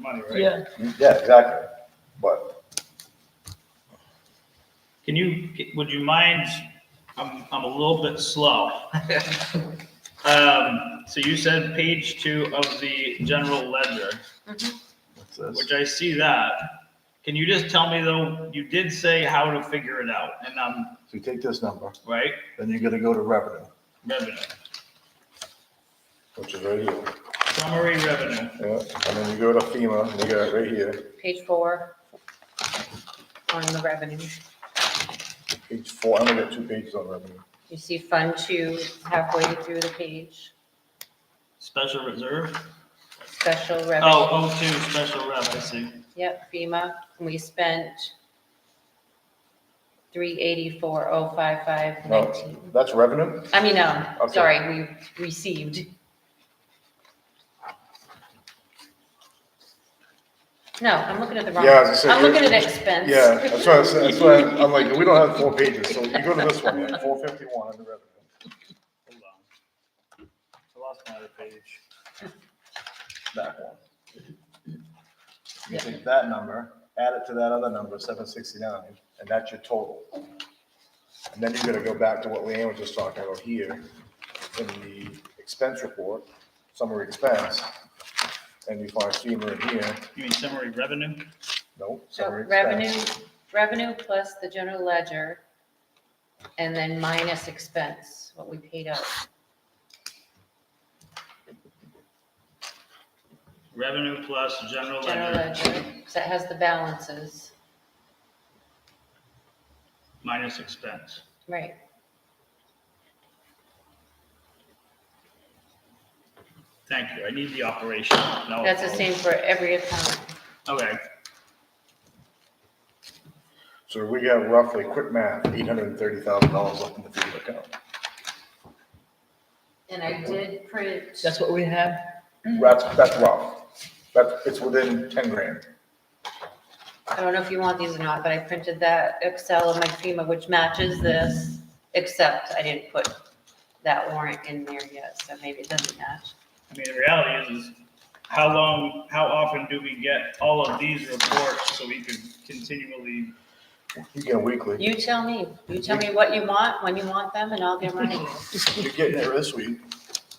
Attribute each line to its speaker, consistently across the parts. Speaker 1: money, right?
Speaker 2: Yeah,
Speaker 3: Yeah, exactly. But
Speaker 1: Can you, would you mind, I'm, I'm a little bit slow. Um, so you said page two of the general ledger, which I see that. Can you just tell me though, you did say how to figure it out and I'm,
Speaker 3: if you take this number,
Speaker 1: right,
Speaker 3: then you're gonna go to revenue,
Speaker 1: revenue,
Speaker 3: which is right here.
Speaker 1: summary revenue.
Speaker 3: Yeah, and then you go to FEMA, and you got it right here,
Speaker 4: page four on the revenue.
Speaker 3: page four, I only got two pages on revenue.
Speaker 4: You see Fund Two halfway through the page,
Speaker 1: Special reserve?
Speaker 4: special revenue.
Speaker 1: Oh, oh two, special rev, I see.
Speaker 4: Yep, FEMA, and we spent three eighty-four oh five five
Speaker 3: No,
Speaker 4: nineteen.
Speaker 3: that's revenue?
Speaker 4: I mean, no,
Speaker 3: Okay.
Speaker 4: sorry, we received. No, I'm looking at the wrong,
Speaker 3: Yeah, I was gonna say,
Speaker 4: I'm
Speaker 3: you're-
Speaker 4: looking at expense.
Speaker 3: Yeah, that's why, I said- that's why I'm I'm like, we don't have four pages, so you go to this one, four fifty-one under revenue.
Speaker 1: Hold on. I lost my other page.
Speaker 3: that one. You take that number, add it to that other number, seven sixty-nine, and that's your total. And then you're gonna go back to what Leanne was just talking about here, in the expense report, summary expense, and you find FEMA in here,
Speaker 1: You mean summary revenue?
Speaker 3: nope,
Speaker 4: So
Speaker 3: summary
Speaker 4: revenue,
Speaker 3: expense.
Speaker 4: revenue plus the general ledger, and then minus expense, what we paid out.
Speaker 1: Revenue plus general
Speaker 4: General
Speaker 1: ledger
Speaker 4: ledger, so it has the balances,
Speaker 1: minus expense.
Speaker 4: right?
Speaker 1: Thank you. I need the operation. No
Speaker 4: That's the
Speaker 1: apology.
Speaker 4: same for every account.
Speaker 1: Okay,
Speaker 3: So we got roughly, quick math, eight hundred and thirty thousand dollars left in the FEMA account.
Speaker 4: And I did print,
Speaker 2: that's what we have.
Speaker 3: That's, that's rough, that's, it's within ten grand.
Speaker 4: I don't know if you want these or not, but I printed that Excel of my FEMA, which matches this, except I didn't put that warrant in there yet, so maybe it doesn't match.
Speaker 1: I mean, the reality is, is how long, how often do we get all of these reports so we can continually?
Speaker 3: You get a weekly,
Speaker 4: You tell me, you tell me what you want, when you want them, and I'll get them running.
Speaker 3: you're getting it this week,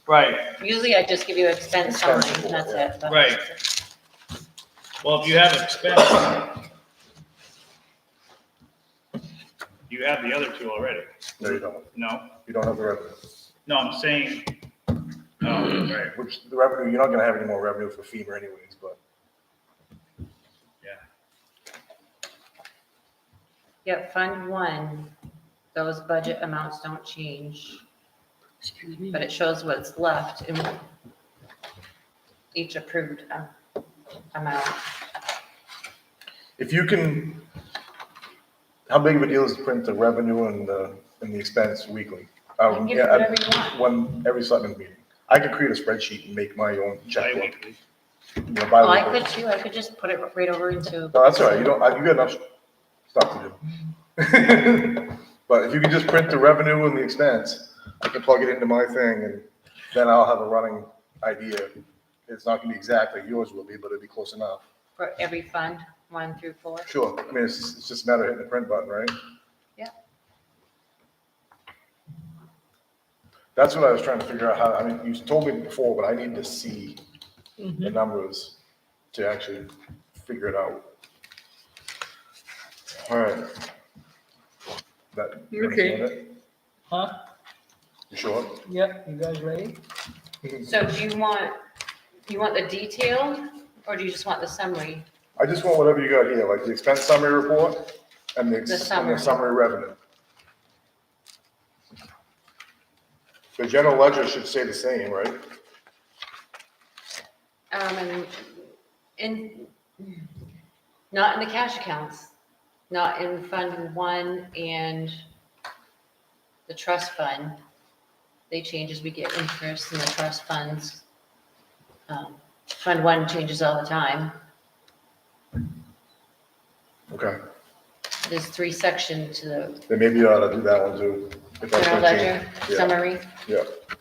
Speaker 1: Right.
Speaker 4: Usually I just give you expense summary,
Speaker 3: Expense
Speaker 4: and
Speaker 3: report,
Speaker 4: that's it. but-
Speaker 1: Right. Well, if you have expense, you have the other two already.
Speaker 3: no, you don't,
Speaker 1: No,
Speaker 3: you don't have the revenue.
Speaker 1: no, I'm saying, oh, right.
Speaker 3: Which the revenue, you're not gonna have any more revenue for FEMA anyways, but
Speaker 4: Yep, Fund One, those budget amounts don't change, but it shows what's left in each approved uh, amount.
Speaker 3: if you can, how big of a deal is to print the revenue and the, and the expense weekly?
Speaker 4: You
Speaker 3: Um,
Speaker 4: can give
Speaker 3: yeah,
Speaker 4: it whatever
Speaker 3: I-
Speaker 4: you want.
Speaker 3: When, every selectman meeting. I could create a spreadsheet and make my own checkbook.
Speaker 1: Bi-weekly.
Speaker 3: you know,
Speaker 4: Well, Oh, I
Speaker 3: bi-weekly.
Speaker 4: could too, I could just put it right over into,
Speaker 3: No, that's all right, you don't, I- you got enough stuff to do. But if you can just print the revenue and the expense, I can plug it into my thing and then I'll have a running idea. It's not gonna be exactly yours will be, but it'll be close enough.
Speaker 4: for every fund, one through four.
Speaker 3: Sure, I mean, it's, it's just a matter of hitting the print button, right?
Speaker 4: Yeah.
Speaker 3: That's what I was trying to figure out how, I mean, you told me before, but I need to see the numbers to actually figure it out. All right. That, you
Speaker 2: Okay.
Speaker 3: understand it?
Speaker 2: Huh?
Speaker 3: You sure?
Speaker 2: Yep, you guys ready?
Speaker 4: So do you want, you want the detail, or do you just want the summary?
Speaker 3: I just want whatever you got here, like the expense summary report and the,
Speaker 4: The
Speaker 3: ex- and the
Speaker 4: summary.
Speaker 3: summary revenue. The general ledger should stay the same, right?
Speaker 4: Um, and, in not in the cash accounts, not in Fund One and the trust fund. They change as we get interest in the trust funds. Um, Fund One changes all the time.
Speaker 3: Okay,
Speaker 4: There's three sections to the
Speaker 3: then maybe you ought to do that one too. if that's
Speaker 4: general
Speaker 3: gonna change.
Speaker 4: ledger
Speaker 3: Yeah,
Speaker 4: summary.
Speaker 3: Yeah,